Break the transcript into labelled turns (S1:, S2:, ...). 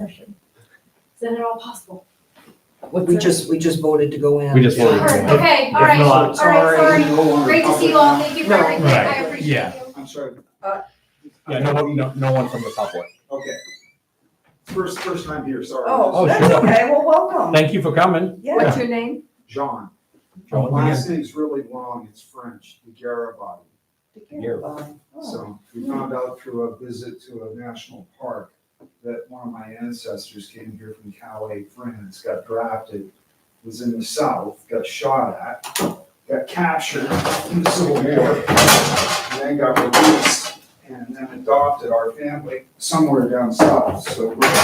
S1: session. Is that at all possible?
S2: We just, we just voted to go in.
S3: We just
S1: All
S3: voted to go
S1: right,
S3: in.
S1: okay, all
S3: There's
S1: right,
S3: no
S1: all right, sorry. Great to see you all, thank you for
S2: No.
S1: everything, I
S3: Right.
S1: appreciate you.
S3: Yeah.
S4: I'm sorry.
S2: Uh,
S3: Yeah, no, one- no, no one from the public.
S4: Okay. First, first time here, sorry.
S3: Oh,
S2: Oh, that's
S3: sure.
S2: okay, well, welcome.
S3: Thank you for coming.
S2: Yeah,
S5: your name?
S4: John. The
S3: John,
S4: last name's really long, it's French, the Garabati.
S3: Here.
S2: Oh,
S4: So we
S1: Hmm.
S4: found out through a visit to a national park that one of my ancestors came here from Calais, France, got drafted, was in the south, got shot at, got captured in the Civil War, and then got released, and then adopted our family somewhere down south. So we're